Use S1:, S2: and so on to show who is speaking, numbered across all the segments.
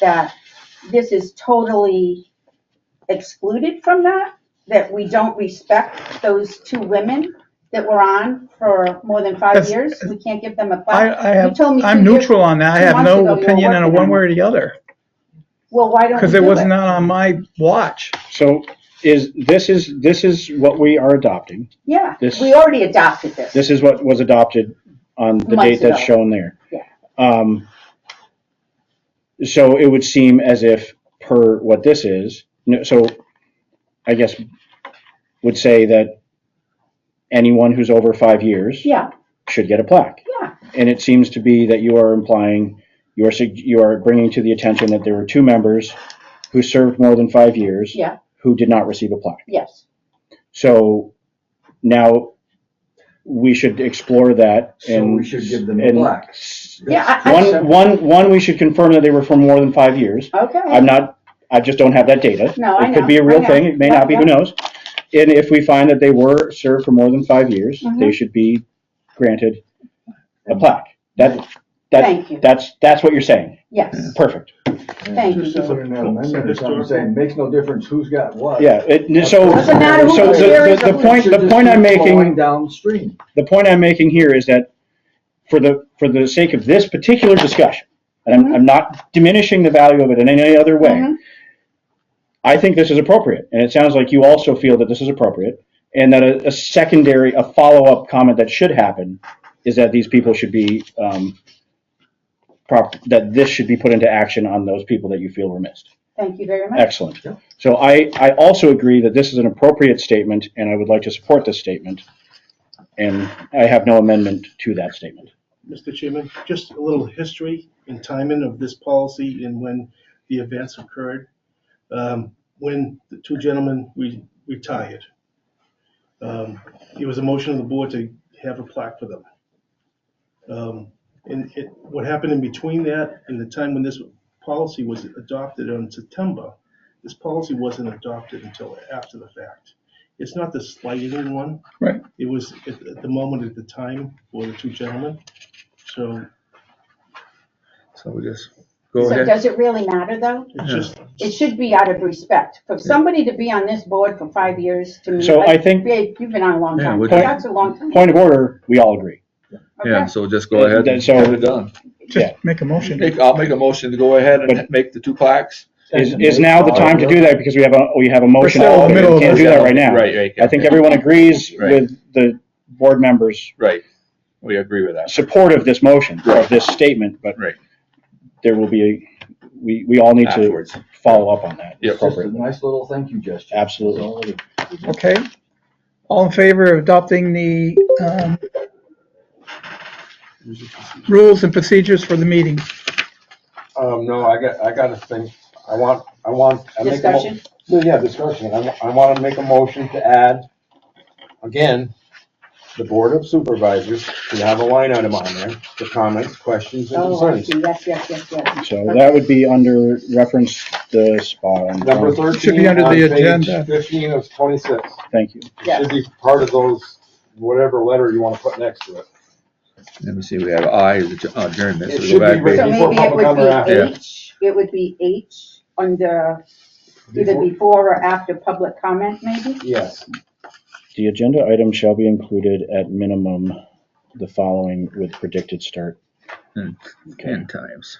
S1: that this is totally excluded from that, that we don't respect those two women that were on for more than five
S2: That's-
S1: years? We can't give them a
S2: I,
S1: plaque?
S2: I
S1: You
S2: have,
S1: told me
S2: I'm
S1: two years-
S2: neutral on that. I
S1: two
S2: have
S1: months ago
S2: no
S1: you were
S2: opinion on
S1: working
S2: it
S1: on
S2: one way or the other,
S1: Well, why don't
S2: because
S1: we
S2: it
S1: do
S2: was
S1: it?
S2: not on my watch.
S3: So is, this is, this is what we are adopting.
S1: Yeah,
S3: this-
S1: we already adopted this.
S3: This is what was adopted on the
S1: Months
S3: date that's
S1: ago.
S3: shown there.
S1: Yeah.
S3: Um, so it would seem as if per what this is, no, so I guess would say that anyone who's over five years
S1: Yeah,
S3: should get a plaque.
S1: yeah,
S3: And it seems to be that you are implying, you are, sug- you are bringing to the attention that there were two members who served more than five years.
S1: Yeah.
S3: Who did not receive a plaque.
S1: yes.
S3: So now we should explore that
S4: So
S3: and.
S4: we should give them a
S3: and
S4: plaque.
S1: Yeah, I- I-
S3: One, one, one, we should confirm that they were for more than five years.
S1: Okay,
S3: I'm not, I just don't have that data.
S1: No, I
S3: It could be a
S1: know, I
S3: real
S1: know.
S3: thing, it may not be,
S1: Yeah,
S3: who knows? And if we find that they were served for more than five years, they
S1: Mhm.
S3: should be granted a plaque. That, that,
S1: thank you,
S3: that's, that's what you're saying.
S1: yes.
S3: Perfect.
S1: Thank you.
S4: Just as an amendment or something,
S5: Historical.
S4: saying, makes no difference who's got what.
S3: Yeah, it, so,
S1: Doesn't matter who
S3: so
S1: was here,
S3: the, the, the
S1: it's-
S3: point, the point I'm making,
S4: Going downstream.
S3: the point I'm making here is that for the, for the sake of this particular discussion, and I'm, I'm not diminishing the value of it in any other way,
S1: Mhm.
S3: I think this is appropriate, and it sounds like you also feel that this is appropriate, and that a, a secondary, a follow-up comment that should happen is that these people should be, um, prop, that this should be put into action on those people that you feel were missed.
S1: Thank you very much.
S3: Excellent.
S4: Yeah.
S3: So I, I also agree that this is an appropriate statement, and I would like to support this statement, and I have no amendment to that statement.
S5: Mr. Chairman, just a little history and timing of this policy and when the events occurred. Um, When the two gentlemen re- retired, um, it was a motion of the board to have a plaque for them. Um, And it, what happened in between that and the time when this policy was adopted on September, this policy wasn't adopted until after the fact. It's not to slight anyone.
S2: Right.
S5: It was at at the moment, at the time, for the two gentlemen. So
S6: So we just go
S1: So
S6: ahead.
S1: does it really matter, though?
S5: it's just,
S1: It should be out of respect. For somebody to be on this board for five years, to me.
S3: So I
S1: like,
S3: think-
S1: Babe, you've been on a long
S6: Yeah,
S1: time.
S6: would
S3: you-
S1: That's a long time.
S3: Point of order, we all agree.
S6: Yeah,
S1: Okay.
S6: so just go ahead and
S3: So-
S6: get it done.
S3: Yeah.
S2: Just make a motion.
S6: Make, I'll make a motion to go ahead and
S3: But-
S6: make the two plaques.
S3: Is, is now the time to do that, because we have a, we have a motion,
S2: still in the
S3: we
S2: middle of
S3: can't
S2: this.
S3: do that right now.
S6: Right, right.
S3: I think everyone agrees
S6: Right.
S3: with the board members'
S6: Right. We agree with that.
S3: support of this motion, of this statement, but
S6: Right.
S3: there will be, a we, we all need to
S6: Afterwards.
S3: follow up on that
S6: Yep.
S4: Just a
S3: appropriately.
S4: nice little thank you gesture.
S3: Absolutely.
S4: That's all it is.
S2: Okay. All in favor of adopting the, um, rules and procedures for the meeting?
S7: Um, no, I got, I got a thing, I want, I want. I make a mo-
S1: Discussion?
S7: No, Yeah, discussion, I, wa- I wanna make a motion to add, again, the Board of Supervisors, to have a line item on there, for comments, questions, and
S1: Oh, I
S7: concerns.
S1: see. Yes, yes, yes, yes.
S3: So that would be under reference the spot. on-
S7: Number
S2: Should be
S7: thirteen
S2: under
S7: on
S2: the
S7: page
S2: agenda.
S7: fifteen of twenty-six,
S3: Thank you.
S1: Yes.
S7: should be part of those, whatever letter you wanna put next to it.
S6: Let me see, we have I is adj- adjournment.
S7: It
S6: so we
S7: should
S6: go
S7: be
S6: back
S7: written
S1: So
S6: to-
S7: Before
S1: maybe it
S7: public comment or
S1: would
S7: after?
S1: be H, it would be H under, either
S7: Before-
S1: before or after public comment, maybe?
S7: Yes,
S3: The agenda item shall be included at minimum the following with predicted start.
S6: Hmm.
S3: Okay,
S6: Ten times.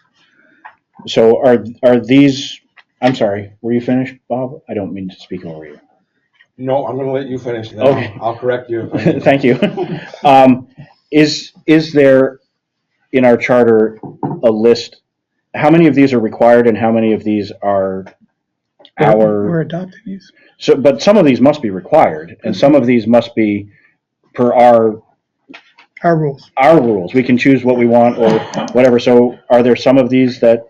S3: so are, are these, I'm sorry, were you finished, Bob? I don't mean to speak over you.
S7: no, I'm gonna let you finish, then
S3: Okay.
S7: I'll- I'll correct you. if I need to.
S3: Thank you. Um, Is, is there in our charter a list? How many of these are required and how many of these are
S2: We're
S3: our?
S2: adopting these.
S3: So, but some of these must be required and some of these must be per our,
S2: Our rules.
S3: our rules. We can choose what we want or whatever. So are there some of these that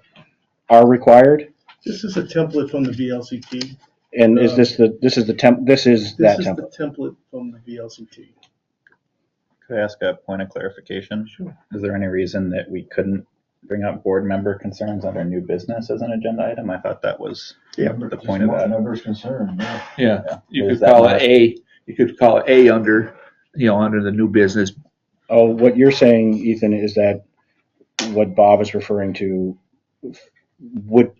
S3: are required?
S5: this is a template from the VLCT.
S3: And is this the, this is the temp, this is
S5: This
S3: that
S5: is
S3: template?
S5: the template from the VLCT.
S8: Could I ask a point of clarification?
S5: Sure.
S8: Is there any reason that we couldn't bring up board member concerns under new business as an agenda item? I thought that was the point of that.
S4: Members concerned, yeah.
S6: Yeah, you
S8: Is
S6: could
S8: that
S6: call
S8: not-
S6: it A, you could call it A under, you know, under the new business.
S3: Oh, what you're saying, Ethan, is that what Bob is referring to would